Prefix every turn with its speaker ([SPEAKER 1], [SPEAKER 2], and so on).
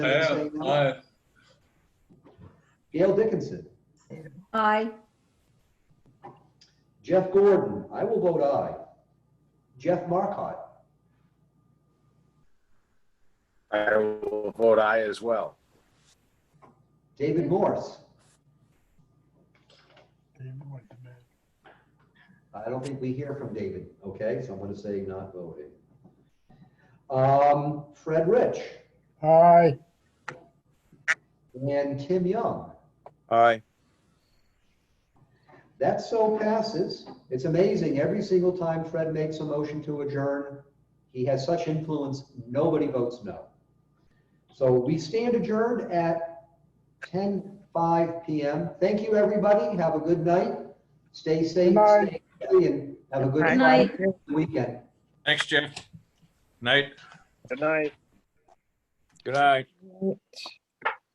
[SPEAKER 1] Yeah, aye.
[SPEAKER 2] Gail Dickinson,
[SPEAKER 3] Aye.
[SPEAKER 2] Jeff Gordon, I will vote aye. Jeff Markot,
[SPEAKER 4] I will vote aye as well.
[SPEAKER 2] David Morse. I don't think we hear from David, okay, so I'm gonna say not voting. Um, Fred Rich
[SPEAKER 5] Aye.
[SPEAKER 2] and Tim Young,
[SPEAKER 6] Aye.
[SPEAKER 2] that so passes. It's amazing, every single time Fred makes a motion to adjourn, he has such influence, nobody votes no. So we stand adjourned at 10:05 PM. Thank you, everybody, have a good night, stay safe,
[SPEAKER 5] Good night.
[SPEAKER 2] stay healthy, and have a good
[SPEAKER 3] Good night.
[SPEAKER 2] weekend.
[SPEAKER 1] Thanks, Jeff. Night.
[SPEAKER 4] Good night.
[SPEAKER 6] Good night.